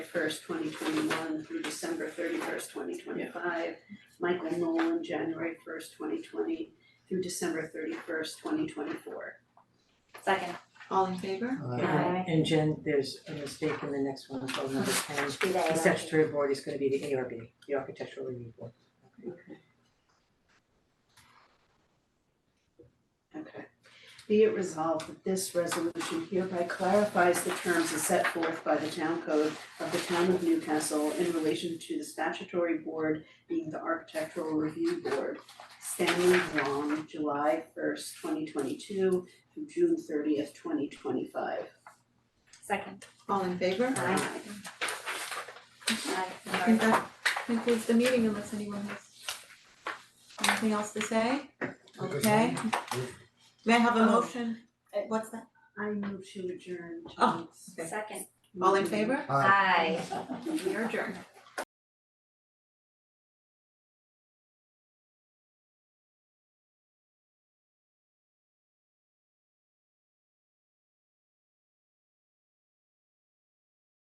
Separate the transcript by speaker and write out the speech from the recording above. Speaker 1: first, twenty twenty-one through December thirty-first, twenty twenty-five. Michael Nolan, January first, twenty twenty through December thirty-first, twenty twenty-four.
Speaker 2: Second,
Speaker 3: All in favor?
Speaker 2: Aye.
Speaker 4: Uh, And Jen, there's a mistake in the next one, so number ten,
Speaker 2: be
Speaker 4: the statutory board is gonna be the ARB, the architectural review board.
Speaker 1: Okay. Be it resolved that this resolution hereby clarifies the terms as set forth by the town code of the town of Newcastle in relation to the statutory board being the architectural review board. Stanley Wong, July first, twenty twenty-two through June thirtieth, twenty twenty-five.
Speaker 2: Second.
Speaker 3: All in favor?
Speaker 2: Aye.
Speaker 3: I think that concludes the meeting unless anyone has anything else to say? Okay. May I have a motion?
Speaker 2: Oh.
Speaker 3: What's that?
Speaker 1: I move to adjourn
Speaker 3: Oh,
Speaker 1: tonight's.
Speaker 2: Second.
Speaker 3: All in favor?
Speaker 2: Aye.
Speaker 3: We are adjourned.